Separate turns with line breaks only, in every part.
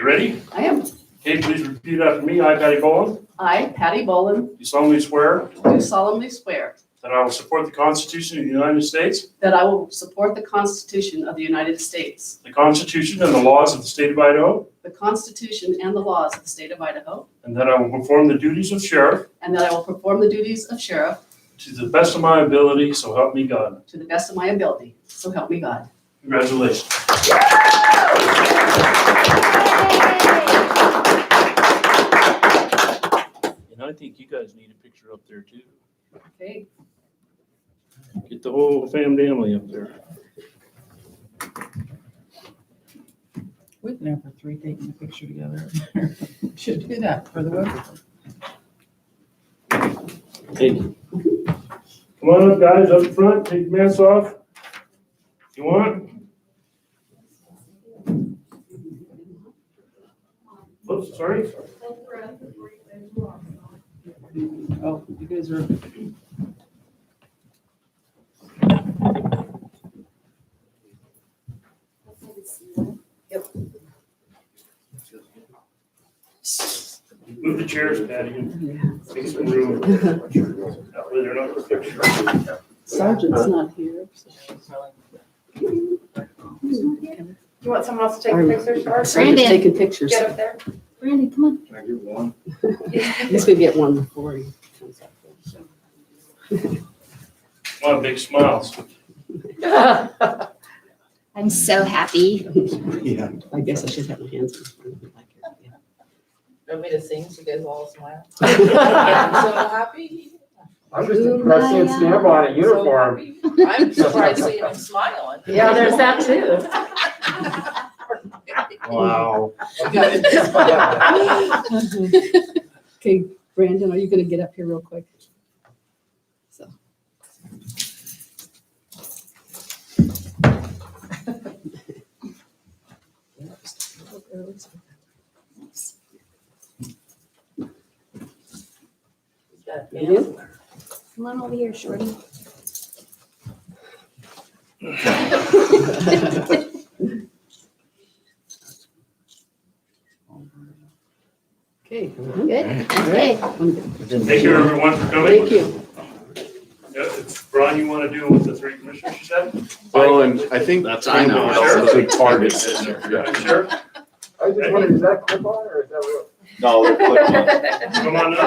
ready?
I am.
Okay, please repeat after me. I, Patty Bowen,
I, Patty Boland,
do solemnly swear
do solemnly swear
that I will support the Constitution of the United States,
that I will support the Constitution of the United States,
the Constitution and the laws of the state of Idaho,
the Constitution and the laws of the state of Idaho,
and that I will perform the duties of sheriff
and that I will perform the duties of sheriff
to the best of my ability, so help me God.
to the best of my ability. So help me God.
Congratulations. And I think you guys need a picture up there too.
Okay,
Get the whole fam family up there.
We've known for three taking a picture together. Should do that for the web.
Thank you. Come on up, guys, up front, take your masks off. If you want. Oops, sorry.
Oh, you guys are.
Move the chairs, Patty, and
yeah.
make some room. That way they're not in the picture.
Sergeant's not here.
You want someone else to take a picture, Shar?
Sergeant's taking pictures.
Get up there.
Randy, come on.
Can I get one?
At least we get one before he comes up.
Come on, big smiles.
I'm so happy.
Yeah.
I guess I should have my hands in front of me like here, yeah.
Want me to sing so you guys all smile?
Well,
I'm so happy.
I'm just impressed seeing Snap on a uniform.
So happy. I'm surprised seeing him smiling.
Yeah, there's that too.
Wow.
Okay, Brandon, are you gonna get up here real quick? So.
Come on over here, Shorty.
Okay.
Good? Okay.
Thank you, everyone, for coming.
Thank you.
Yeah, if, Ron, you want to do with the three commissioners you said?
Well, and I think.
That's-
that's
I know.
a big part of it.
I'm Sure,
I was just wondering, is that clip on or is that real?
No, they're clip on.
come on up.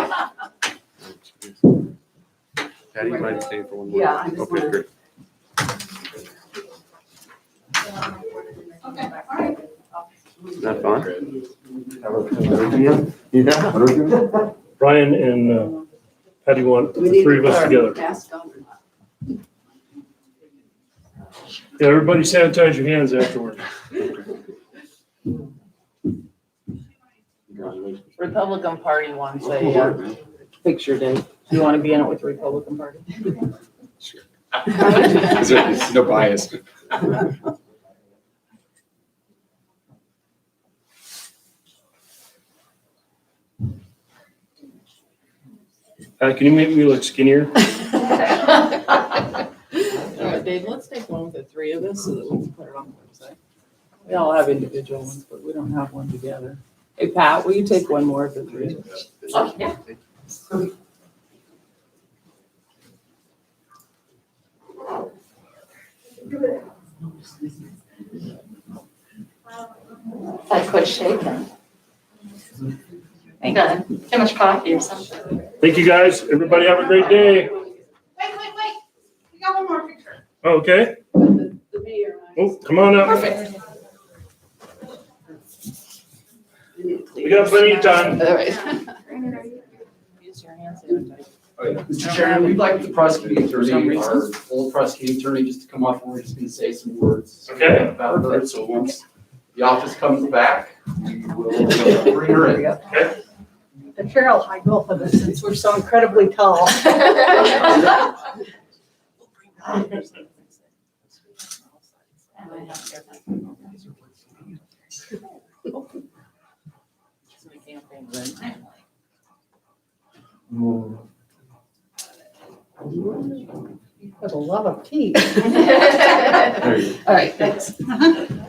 Patty, you mind staying for one more?
Yeah, I just
Okay,
wanna-
great. Not fun?
Yeah.
Brian and uh, Patty want
Do we
the
need
three of us
our
together.
Mask on or not?
Yeah, everybody sanitize your hands afterward.
Republican Party wants a, uh,
Picture day.
you want to be in it with the Republican Party?
Is there- No bias.
Uh, Can you make me look skinnier?
All right, Dave, let's take one with the three of us so that we can put it on the website. We all have individual ones, but we don't have one together. Hey, Pat, will you take one more of the three?
I quit shaking. Ain't got too much coffee or something.
Thank you, guys. Everybody have a great day.
Wait, wait, wait. We got one more picture.
Okay,
The the mayor, and I-
oh, come on up.
Perfect.
I need to clean
We got plenty of time.
All right.
Use your hands. sanitizer.
Mr. Chairman, we'd like the prosecuting attorney, our old prosecuting attorney, just to come up, and we're just gonna say some words.
Okay.
About her, so once the office comes back, we will uh, bring her in.
The chair will hide both of us since we're so incredibly tall.
So we can't bring them.
With a lot of teeth.
There you go.
All right, thanks.